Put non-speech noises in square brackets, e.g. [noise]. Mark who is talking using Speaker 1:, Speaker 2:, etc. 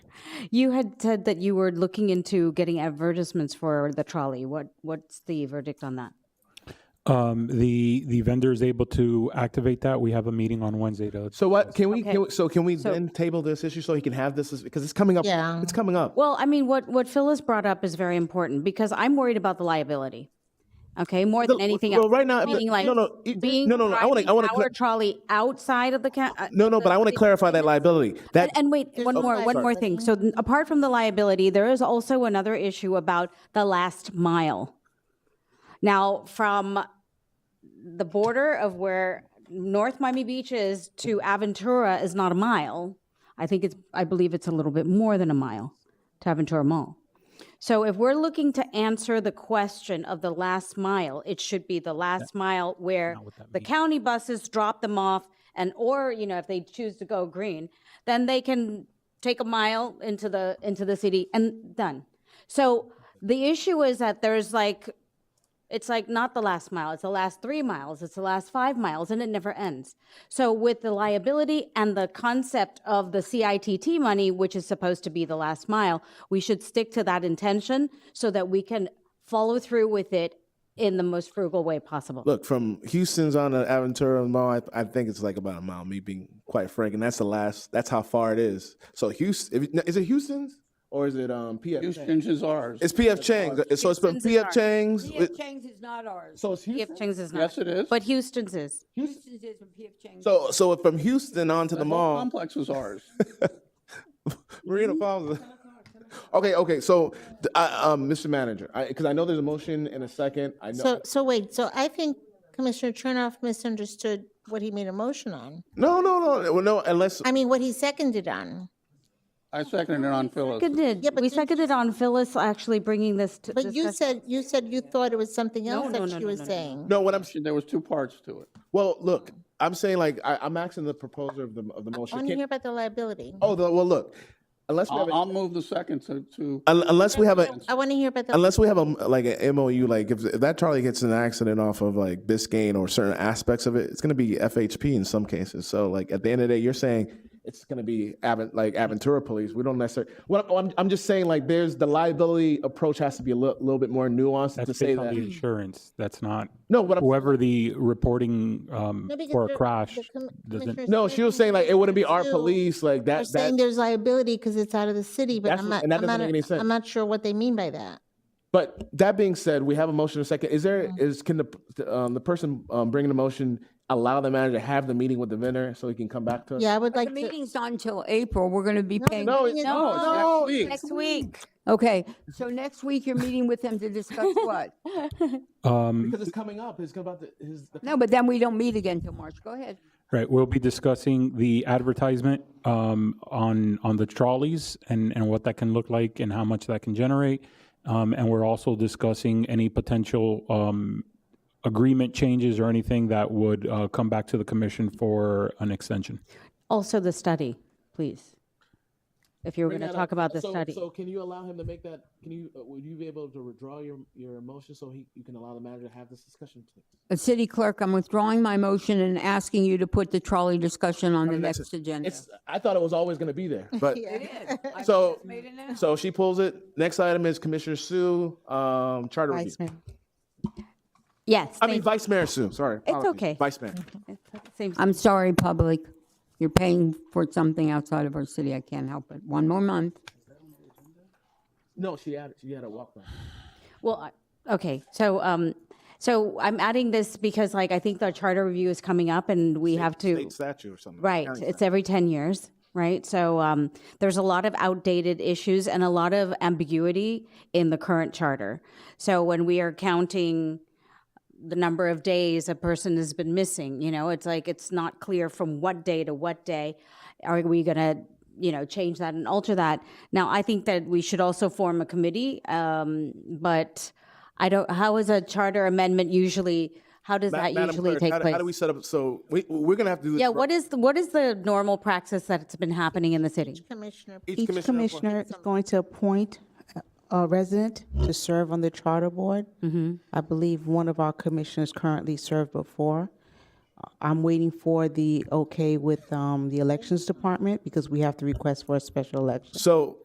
Speaker 1: You had said that you were looking into getting advertisements for the trolley. What what's the verdict on that?
Speaker 2: Um, the, the vendor is able to activate that. We have a meeting on Wednesday to.
Speaker 3: So what, can we, can
Speaker 1: Okay.
Speaker 3: we- so can we
Speaker 1: So-
Speaker 3: then table this issue so he can have this, as- because it's coming up,
Speaker 4: Yeah.
Speaker 3: it's coming up.
Speaker 1: Well, I mean, what what Phyllis brought up is very important because I'm worried about the liability. Okay, more than
Speaker 3: The-
Speaker 1: anything
Speaker 3: well,
Speaker 1: else.
Speaker 3: right now, the-
Speaker 1: Meaning, like
Speaker 3: no, no, it-
Speaker 1: being
Speaker 3: no, no, no, I wanna- I
Speaker 1: driving
Speaker 3: wanna
Speaker 1: our
Speaker 3: cla-
Speaker 1: trolley outside of the ca- uh,
Speaker 3: No, no, but I want to clarify that liability. That,
Speaker 1: And, and wait, one
Speaker 3: no
Speaker 1: more, one more thing. So n- apart from the liability, there is also another issue about the last mile. Now, from the border of where North Miami Beach is to Aventura is not a mile. I think it's, I believe it's a little bit more than a mile to Aventura Mall. So if we're looking to answer the question of the last mile, it should be the last mile where the county buses drop them off and, or, you know, if they choose to go green, then they can take a mile into the, into the city and done. So the issue is that there's like, it's like not the last mile, it's the last three miles, it's the last five miles, and it never ends. So, with the liability and the concept of the CITT money, which is supposed to be the last mile, we should stick to that intention so that we can follow through with it in the most frugal way possible.
Speaker 3: look, from Houston's on the Aventura Mall, I, I think it's like about a mile, me being quite frank, and that's the last, that's how far it is. So Houston, if, is it Houston's or is it, um, PF?
Speaker 5: Houston's is ours.
Speaker 3: It's PF Chang's. So it's from
Speaker 1: Houston's is
Speaker 3: PF
Speaker 1: ours.
Speaker 3: Chang's.
Speaker 6: PF Chang's is not ours.
Speaker 5: So it's
Speaker 1: PF
Speaker 5: Houston?
Speaker 1: Chang's is not.
Speaker 5: Yes, it is.
Speaker 1: But Houston's is.
Speaker 6: Houston's is and PF Chang's.
Speaker 3: So, so from Houston on to the
Speaker 5: The whole
Speaker 3: mall.
Speaker 5: complex
Speaker 3: [laughs]
Speaker 5: is ours.
Speaker 3: Marina Falls. Okay, okay, so, uh, um, Mr. Manager, I, because I know there's a motion in a second, I know.
Speaker 4: So, so wait, so I think Commissioner Chernoff misunderstood what he made a motion on.
Speaker 3: No, no, no, well, no, unless,
Speaker 4: I mean, what he seconded on.
Speaker 5: I seconded it on Phyllis.
Speaker 1: Seconded.
Speaker 4: but
Speaker 1: we
Speaker 4: didn't-
Speaker 1: seconded on Phyllis actually bringing this to
Speaker 4: But you
Speaker 1: discuss-
Speaker 4: said, you said you thought it was something
Speaker 1: No,
Speaker 4: else
Speaker 1: no,
Speaker 4: that
Speaker 1: no,
Speaker 4: she
Speaker 1: no,
Speaker 4: was
Speaker 1: no, no, no.
Speaker 4: saying.
Speaker 3: no, what I'm, s-
Speaker 5: There was two parts to it.
Speaker 3: well, look, I'm saying like, I, I'm asking the proposer of the, of the
Speaker 4: I
Speaker 3: motion.
Speaker 4: want to
Speaker 3: Can-
Speaker 4: hear about the liability.
Speaker 3: Oh, the- well, look, unless we have,
Speaker 5: I'll,
Speaker 3: a-
Speaker 5: I'll move the second to, to,
Speaker 3: un- unless we have a,
Speaker 4: I want to hear about the.
Speaker 3: unless we have a, like, an MOU, like, if if that Charlie gets in an accident off of like Biscayne or certain aspects of it, it's gonna be FHP in some cases, so like, at the end of the day, you're saying it's gonna be Avent, like Aventura Police, we don't necessarily, well, I'm, I'm just saying like, there's, the liability approach has to be a li- little bit more nuanced to
Speaker 2: That's
Speaker 3: say
Speaker 2: based on the
Speaker 3: that.
Speaker 2: insurance. That's not,
Speaker 3: No, what I'm
Speaker 2: whoever the reporting, um,
Speaker 4: No, because
Speaker 2: for a
Speaker 4: the-
Speaker 2: crash
Speaker 4: the com-
Speaker 2: doesn't,
Speaker 4: commissioners
Speaker 3: No, she was saying like it wouldn't be our
Speaker 4: too
Speaker 3: police, like
Speaker 4: Are
Speaker 3: that.
Speaker 4: saying
Speaker 3: that
Speaker 4: there's liability because it's out of the city, but
Speaker 3: That's
Speaker 4: I'm
Speaker 3: what-
Speaker 4: not,
Speaker 3: and that
Speaker 4: I'm
Speaker 3: doesn't
Speaker 4: not,
Speaker 3: make any sense.
Speaker 4: I'm not sure what they mean by that.
Speaker 3: but that being said, we have a motion in a second. Is there is can the um, the person um, bringing the motion allow the manager to have the meeting with the vendor so he can come back to us?
Speaker 4: Yeah, I would
Speaker 6: The
Speaker 4: like to.
Speaker 6: meeting's not until April. We're going to be paying.
Speaker 3: No, it's-
Speaker 4: No,
Speaker 3: no,
Speaker 5: no,
Speaker 3: it's-
Speaker 5: next
Speaker 6: week. Okay, so next week you're meeting with them to
Speaker 3: [laughs]
Speaker 6: discuss what?
Speaker 2: um,
Speaker 3: because it's coming up. It's about the, his, the
Speaker 6: No, but then we don't meet again till March. Go ahead.
Speaker 2: right. We'll be discussing the advertisement, um, on, on the trolleys and, and what that can look like and how much that can generate. Um, and we're also discussing any potential, um, agreement changes or anything that would, uh, come back to the commission for an extension.
Speaker 1: Also, the study, please. If you were going to talk about the
Speaker 3: so,
Speaker 1: study.
Speaker 3: So can you allow him to make that? Can you uh, would you be able to withdraw your your motion so he you can allow the manager to have this discussion? Please?
Speaker 6: Uh, City Clerk, I'm withdrawing my motion and asking you to put the trolley discussion on the next agenda.
Speaker 3: It's I thought it was always going to be there, but
Speaker 6: is.
Speaker 3: so so she pulls it. Next item is Commissioner Sue, um, charter review.
Speaker 4: Vice Mayor.
Speaker 1: yes.
Speaker 3: I mean
Speaker 1: thank-
Speaker 3: Vice Mayor Sue. Sorry, apologies.
Speaker 1: okay. Mm-hmm.
Speaker 3: Vice Mayor.
Speaker 1: seems-
Speaker 6: I'm sorry, public. You're paying for something outside of our city. I can't help it. One more month.
Speaker 3: No, she had she had a walk by.
Speaker 1: Well, I- okay, so, um, so I'm adding this because like, I think the charter review is coming up and we have to,
Speaker 3: state statue or something.
Speaker 1: right,
Speaker 3: County
Speaker 1: it's
Speaker 3: statue.
Speaker 1: every 10 years, right? So, um, there's a lot of outdated issues and a lot of ambiguity in the current charter. So when we are counting the number of days a person has been missing, you know, it's like, it's not clear from what day to what day. Are we gonna, you know, change that and alter that? Now, I think that we should also form a committee, um, but I don't, how is a charter amendment usually, how does that
Speaker 3: Madam
Speaker 1: usually
Speaker 3: Clerk,
Speaker 1: take
Speaker 3: how, do-
Speaker 1: place?
Speaker 3: How do we set up? So we we're gonna have to do this.
Speaker 1: Yeah,
Speaker 3: for
Speaker 1: what is, the- what is the normal practice that's been happening in the city?
Speaker 4: Commissioner,
Speaker 3: each
Speaker 7: Each commissioner is going to appoint a a resident to serve on the charter board. I believe one of our commissioners currently served before. Uh, I'm waiting for the okay with um, the elections department because we have to request for a special election.
Speaker 3: So